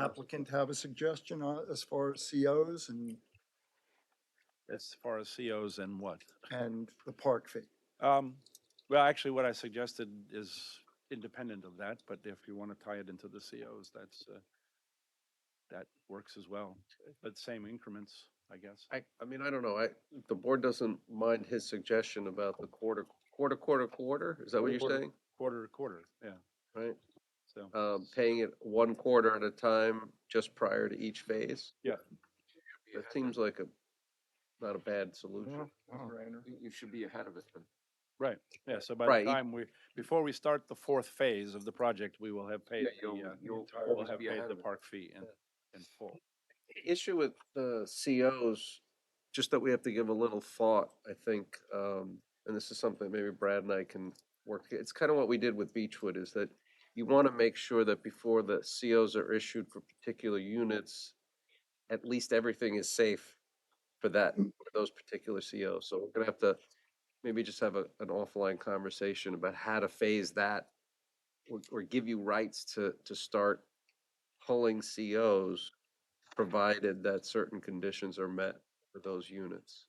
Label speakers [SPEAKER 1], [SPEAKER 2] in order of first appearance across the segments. [SPEAKER 1] applicant have a suggestion on, as far as COs and,
[SPEAKER 2] As far as COs and what?
[SPEAKER 1] and the park fee?
[SPEAKER 2] Um, well, actually, what I suggested is independent of that, but if you want to tie it into the COs, that's, uh, that works as well, but same increments, I guess.
[SPEAKER 3] I, I mean, I don't know, I, if the board doesn't mind his suggestion about the quarter, quarter, quarter, quarter, is that what you're
[SPEAKER 2] Quarter.
[SPEAKER 3] saying?
[SPEAKER 2] Quarter to quarter, yeah,
[SPEAKER 3] Right,
[SPEAKER 2] so.
[SPEAKER 4] Uh,
[SPEAKER 3] um, paying it one quarter at a time, just prior to each phase?
[SPEAKER 2] Yeah.
[SPEAKER 3] That seems like a, not a bad solution.
[SPEAKER 4] You should be ahead of it then.
[SPEAKER 2] Yeah, so by
[SPEAKER 3] Right.
[SPEAKER 2] the time we, before we start the fourth phase of the project, we will have paid, the,
[SPEAKER 4] you'll-
[SPEAKER 2] uh,
[SPEAKER 4] you'll
[SPEAKER 2] we'll
[SPEAKER 4] always
[SPEAKER 2] have
[SPEAKER 4] be
[SPEAKER 2] paid
[SPEAKER 4] ahead
[SPEAKER 2] the
[SPEAKER 4] of it.
[SPEAKER 2] park fee in, in full.
[SPEAKER 3] The Issue with the COs, just that we have to give a little thought, I think, um, and this is something maybe Brad and I can work, it's kind of what we did with Beechwood, is that you want to make sure that before the COs are issued for particular units, at least everything is safe for that,
[SPEAKER 1] Mm.
[SPEAKER 3] for those particular COs. So we're gonna have to maybe just have a, an offline conversation about how to phase that or, or give you rights to, to start pulling COs provided that certain conditions are met for those units.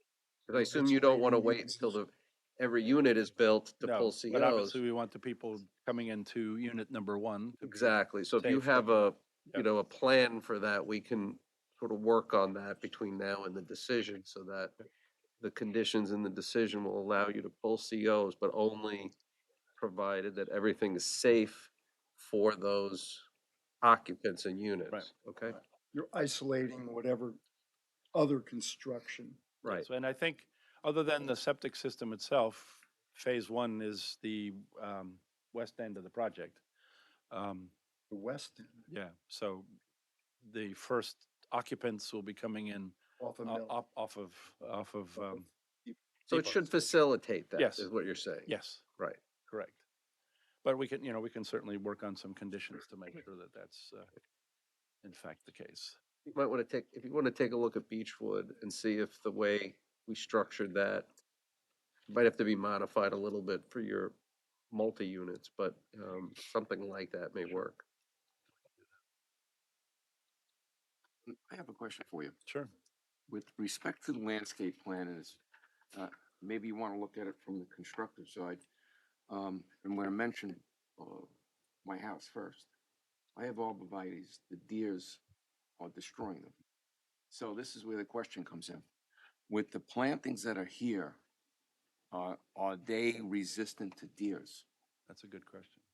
[SPEAKER 3] Because I
[SPEAKER 1] Well,
[SPEAKER 3] assume
[SPEAKER 1] that's
[SPEAKER 3] you don't
[SPEAKER 1] why
[SPEAKER 3] want to
[SPEAKER 1] we
[SPEAKER 3] wait
[SPEAKER 1] use
[SPEAKER 3] until
[SPEAKER 1] this-
[SPEAKER 3] the, every unit is built to
[SPEAKER 2] No,
[SPEAKER 3] pull
[SPEAKER 2] But
[SPEAKER 3] COs.
[SPEAKER 2] obviously, we want the people coming into unit number one. to be
[SPEAKER 3] Exactly. So if you
[SPEAKER 2] safe.
[SPEAKER 3] have a,
[SPEAKER 2] Yeah.
[SPEAKER 3] you know, a plan for that, we can sort of work on that between now and the decision so that the conditions in the decision will allow you to pull COs, but only provided that everything is safe for those occupants and units. Okay?
[SPEAKER 1] You're isolating whatever other construction.
[SPEAKER 3] Right.
[SPEAKER 2] So, and I think, other than the septic system itself, phase one is the um, west end of the project. Um,
[SPEAKER 1] The west end
[SPEAKER 2] Yeah, so the first occupants will be coming in
[SPEAKER 1] off of
[SPEAKER 2] o-
[SPEAKER 1] Mill.
[SPEAKER 2] up- off of, off of, um,
[SPEAKER 3] So it should facilitate that,
[SPEAKER 2] Yes.
[SPEAKER 3] is what you're saying?
[SPEAKER 2] yes.
[SPEAKER 3] Right.
[SPEAKER 2] Correct. But we can, you know, we can certainly work on some conditions to make sure that that's, uh, in fact, the case.
[SPEAKER 3] You might want to take, if you want to take a look at Beechwood and see if the way we structured that might have to be modified a little bit for your multi-units, but um, something like that may work.
[SPEAKER 4] Mm, I have a question for you.
[SPEAKER 2] Sure.
[SPEAKER 4] With respect to the landscape plan is, uh, maybe you want to look at it from the constructive side. Um, I'm going to mention, uh, my house first. I have arborvitae's, the deers are destroying them. So this is where the question comes in. With the plantings that are here, uh, are they resistant to deers?
[SPEAKER 2] That's a good question.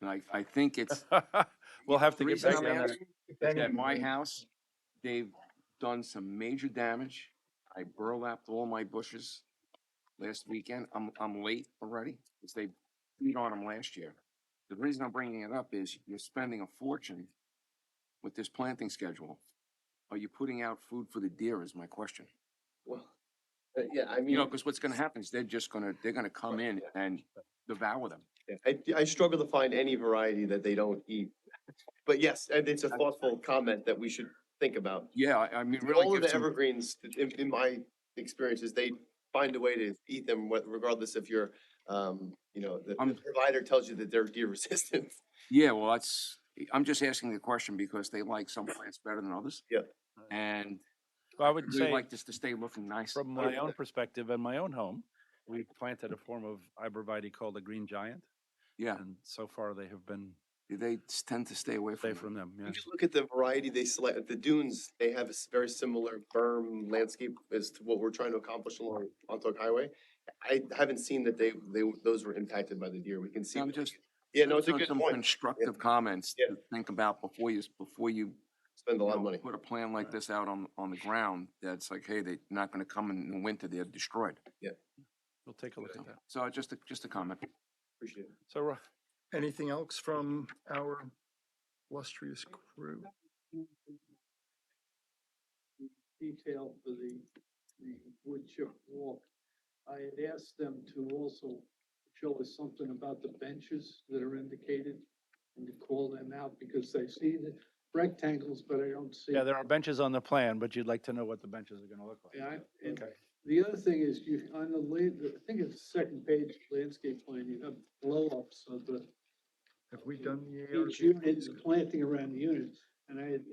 [SPEAKER 4] And I, I think it's,
[SPEAKER 2] We'll have to
[SPEAKER 4] the
[SPEAKER 2] get
[SPEAKER 4] reason
[SPEAKER 2] back
[SPEAKER 4] I'm
[SPEAKER 2] on that.
[SPEAKER 4] asking at my house, they've done some major damage. I burlapped all my bushes last weekend. I'm, I'm late already, because they beat on them last year. The reason I'm bringing it up is you're spending a fortune with this planting schedule. Are you putting out food for the deer is my question.
[SPEAKER 3] Well,
[SPEAKER 5] uh,
[SPEAKER 3] yeah, I
[SPEAKER 4] You know, because what's gonna happen is they're just gonna, they're gonna come in and devour them.
[SPEAKER 5] Yeah, I, I struggle to find any variety that they don't eat. But yes, and it's a thoughtful comment that we should think about.
[SPEAKER 4] Yeah, I, I mean, really
[SPEAKER 5] All of
[SPEAKER 4] give
[SPEAKER 5] the
[SPEAKER 4] some-
[SPEAKER 5] evergreens, in, in my experiences, they find a way to eat them wh- regardless if you're, um, you know, the the
[SPEAKER 4] I'm-
[SPEAKER 5] provider tells you that they're deer resistant.
[SPEAKER 4] Yeah, well, that's, I'm just asking the question because they like some plants better than others.
[SPEAKER 5] Yeah.
[SPEAKER 4] And
[SPEAKER 2] I would
[SPEAKER 4] we
[SPEAKER 2] say.
[SPEAKER 4] like this to stay looking nice.
[SPEAKER 2] From my own perspective and my own home, we planted a form of arborvitae called the green giant,
[SPEAKER 4] Yeah,
[SPEAKER 2] and so far they have been
[SPEAKER 4] they s- tend to stay away from.
[SPEAKER 2] safe
[SPEAKER 4] them.
[SPEAKER 2] from them, yeah.
[SPEAKER 5] If you look at the variety they select, the dunes, they have a s- very similar berm landscape as to what we're trying to accomplish along Montauk Highway. I haven't seen that they, they, those were impacted by the deer. We can see.
[SPEAKER 4] I'm
[SPEAKER 5] what-
[SPEAKER 4] just-
[SPEAKER 5] Yeah, no, it's a
[SPEAKER 4] So
[SPEAKER 5] good
[SPEAKER 4] some
[SPEAKER 5] point.
[SPEAKER 4] Constructive comments
[SPEAKER 5] Yeah.
[SPEAKER 4] to think about before you, s- before you. you
[SPEAKER 5] Spend a lot of
[SPEAKER 4] know,
[SPEAKER 5] money.
[SPEAKER 4] Put a plan like this out on, on the ground, that's like, hey, they're not gonna come in the winter, they're destroyed.
[SPEAKER 2] We'll take a look at that.
[SPEAKER 4] So just a, just a comment.
[SPEAKER 5] Appreciate it.
[SPEAKER 2] So, uh, Ro-
[SPEAKER 1] Anything else from our illustrious crew?
[SPEAKER 6] detail for the, the wood chip walk. I had asked them to also show us something about the benches that are indicated and to call them out because they see the rectangles, but I don't see.
[SPEAKER 2] yeah, there are benches on the plan, but you'd like to know what the benches are gonna look like.
[SPEAKER 6] Yeah, I- and
[SPEAKER 2] Okay.
[SPEAKER 6] the other thing is you, on the la, I think it's the second page landscape plan, you have blow-ups of the,
[SPEAKER 1] Have we done the ARB?
[SPEAKER 6] each unit, planting around the unit. And I had